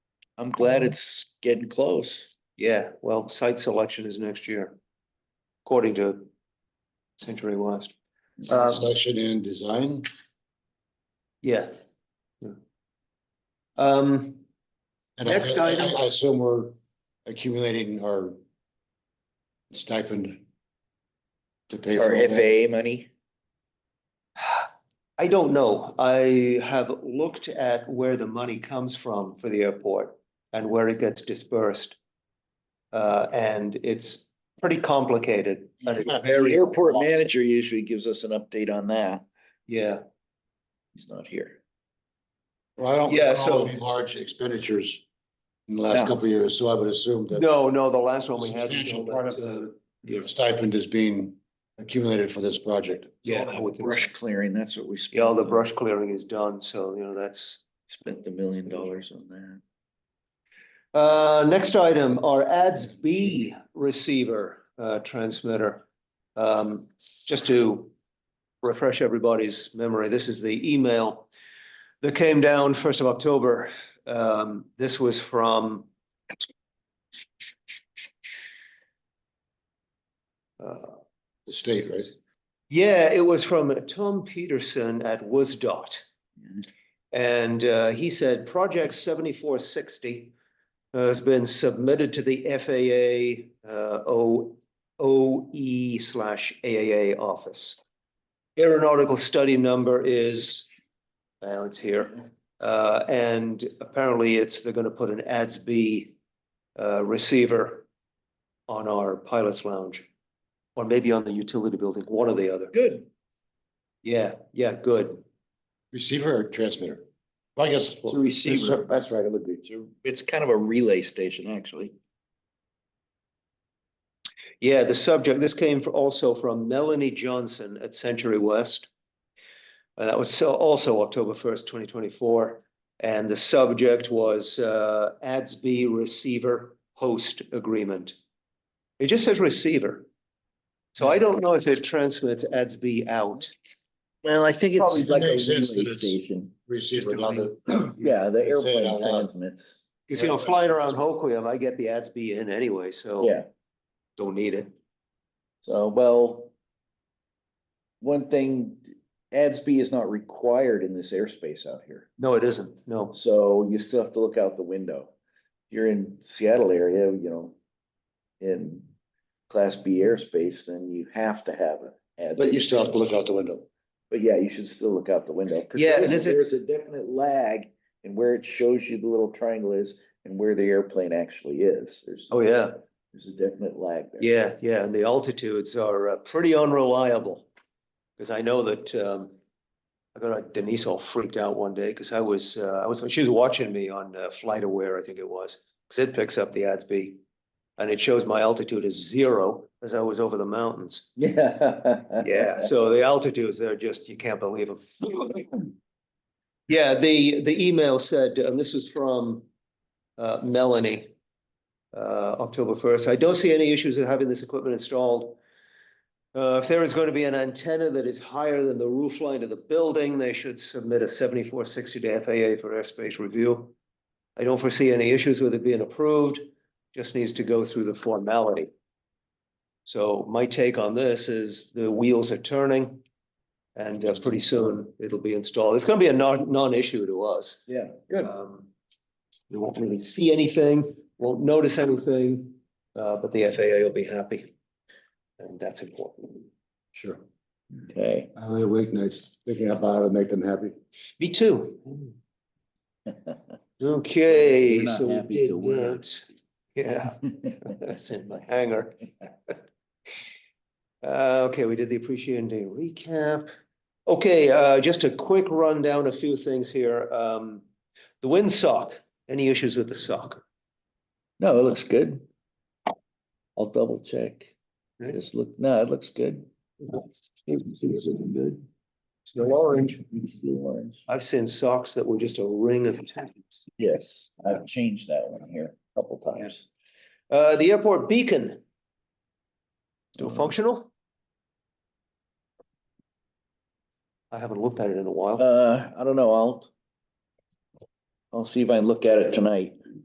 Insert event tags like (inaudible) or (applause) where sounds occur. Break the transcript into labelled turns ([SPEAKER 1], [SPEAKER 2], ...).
[SPEAKER 1] I'm glad it's getting close. Yeah, well, site selection is next year, according to Century West. Um,
[SPEAKER 2] Section and design,
[SPEAKER 1] Yeah. Yeah. Um,
[SPEAKER 2] and I,
[SPEAKER 1] Next
[SPEAKER 2] I-
[SPEAKER 1] item.
[SPEAKER 2] I assume we're accumulating our stipend to pay
[SPEAKER 3] Or
[SPEAKER 2] for all that.
[SPEAKER 3] FAA money?
[SPEAKER 1] I don't know. I have looked at where the money comes from for the airport and where it gets dispersed. Uh, and it's pretty complicated. and it's
[SPEAKER 3] The
[SPEAKER 1] very-
[SPEAKER 3] airport manager usually gives us an update on that.
[SPEAKER 1] Yeah,
[SPEAKER 3] He's not here.
[SPEAKER 2] Well, I don't
[SPEAKER 1] Yeah,
[SPEAKER 2] recall
[SPEAKER 1] so-
[SPEAKER 2] any large expenditures in the last
[SPEAKER 3] No.
[SPEAKER 2] couple of years, so I would assume that
[SPEAKER 1] no, no, the last one we had. was
[SPEAKER 2] substantial
[SPEAKER 1] all that,
[SPEAKER 2] part of
[SPEAKER 1] uh,
[SPEAKER 2] the
[SPEAKER 1] yeah.
[SPEAKER 2] stipend is being accumulated for this project.
[SPEAKER 1] Yeah,
[SPEAKER 3] All
[SPEAKER 1] I
[SPEAKER 3] that
[SPEAKER 1] would think
[SPEAKER 3] Brush clearing, that's what we.
[SPEAKER 1] Yeah, all the
[SPEAKER 3] spent.
[SPEAKER 1] brush clearing is done, so, you know, that's.
[SPEAKER 3] Spent the million dollars on that.
[SPEAKER 1] Uh, next item, our ads B receiver, uh, transmitter. Um, just to refresh everybody's memory, this is the email that came down first of October. Um, this was from uh,
[SPEAKER 2] The state, right?
[SPEAKER 1] yeah, it was from Tom Peterson at WSDOT.
[SPEAKER 3] Mhm.
[SPEAKER 1] And uh, he said, project seventy-four sixty uh, has been submitted to the FAA uh, O, OE slash AAA office. Aeronautical study number is, well, it's here. Uh, And apparently it's, they're going to put an ADS-B uh, receiver on our pilot's lounge. Or maybe on the utility building, one or the other.
[SPEAKER 3] Good.
[SPEAKER 1] Yeah, yeah, good.
[SPEAKER 2] Receiver or transmitter? Well, I guess. well,
[SPEAKER 3] receiver.
[SPEAKER 2] That's right, it would be two.
[SPEAKER 3] It's kind of a relay station, actually.
[SPEAKER 1] Yeah, the subject, this came fr- also from Melanie Johnson at Century West. Uh, that was so also October first, twenty twenty-four, and the subject was uh ADS-B receiver host agreement. It just says receiver. So I don't know if it transmits ADS-B out.
[SPEAKER 3] Well, I think
[SPEAKER 2] Probably
[SPEAKER 3] it's like a
[SPEAKER 2] makes sense that
[SPEAKER 3] relay
[SPEAKER 2] it's-
[SPEAKER 3] station.
[SPEAKER 2] Receiver, not the.
[SPEAKER 3] Yeah, the
[SPEAKER 2] Say it out
[SPEAKER 3] airplane
[SPEAKER 2] loud.
[SPEAKER 3] transmits.
[SPEAKER 1] Cause you know, flying around Hoquiam, I get the ADS-B in anyway, so
[SPEAKER 3] Yeah,
[SPEAKER 1] don't need it.
[SPEAKER 3] so, well. One thing, ADS-B is not required in this airspace out here.
[SPEAKER 1] No, it isn't, no.
[SPEAKER 3] So you still have to look out the window. If You're in Seattle area, you know, in class B airspace, then you have to have a ad.
[SPEAKER 2] But you still have to look out the window.
[SPEAKER 3] But yeah, you should still look out the window. 'cause
[SPEAKER 1] Yeah,
[SPEAKER 3] there
[SPEAKER 1] and
[SPEAKER 3] is-
[SPEAKER 1] is it-
[SPEAKER 3] There is a definite lag in where it shows you the little triangle is and where the airplane actually is. There's.
[SPEAKER 1] Oh, yeah.
[SPEAKER 3] There's a definite lag (laughs) there.
[SPEAKER 1] Yeah, yeah, and the altitudes are uh, pretty unreliable. Cause I know that, um, I got Denise all freaked out one day, cause I was, uh, I was, she was watching me on uh, Flight Aware, I think it was. Cause it picks up the ADS-B and it shows my altitude is zero as I was over the mountains.
[SPEAKER 3] Yeah.
[SPEAKER 1] Yeah, so the altitudes, they're just, you can't believe them. Yeah, the, the email said, and this is from uh, Melanie, uh, October first, I don't see any issues with having this equipment installed. Uh, if there is going to be an antenna that is higher than the roof line of the building, they should submit a seventy-four sixty to FAA for airspace review. I don't foresee any issues with it being approved, just needs to go through the formality. So my take on this is the wheels are turning. And uh, pretty soon it'll be installed. It's gonna be a non, non-issue to us.
[SPEAKER 3] Yeah, good.
[SPEAKER 1] (laughs) Um, We won't really see anything, won't notice anything, uh, but the FAA will be happy. And that's important.
[SPEAKER 2] Sure.
[SPEAKER 3] Okay. (laughs)
[SPEAKER 2] I lay awake nights thinking about how to make them happy.
[SPEAKER 1] Me
[SPEAKER 3] (laughs)
[SPEAKER 1] too. Okay,
[SPEAKER 3] We're not
[SPEAKER 1] so we
[SPEAKER 3] happy,
[SPEAKER 1] did
[SPEAKER 3] so we're-
[SPEAKER 1] that. (laughs) Yeah, that's in my
[SPEAKER 3] (laughs)
[SPEAKER 1] hangar. Uh, okay, we did the appreciation day recap. Okay, uh, just a quick rundown, a few things here. Um, the wind sock, any issues with the sock?
[SPEAKER 3] No, it looks good. I'll double check.
[SPEAKER 1] Right.
[SPEAKER 3] Just look, no, it looks good. It's looking good.
[SPEAKER 1] Still orange.
[SPEAKER 3] It's still orange.
[SPEAKER 1] I've seen socks that were just a ring of tents.
[SPEAKER 3] Yes, I've changed that one here a couple times.
[SPEAKER 1] Uh, the airport beacon. Still functional? I haven't looked at it in a while.
[SPEAKER 3] Uh, I don't know, I'll. I'll see if I can look at it tonight.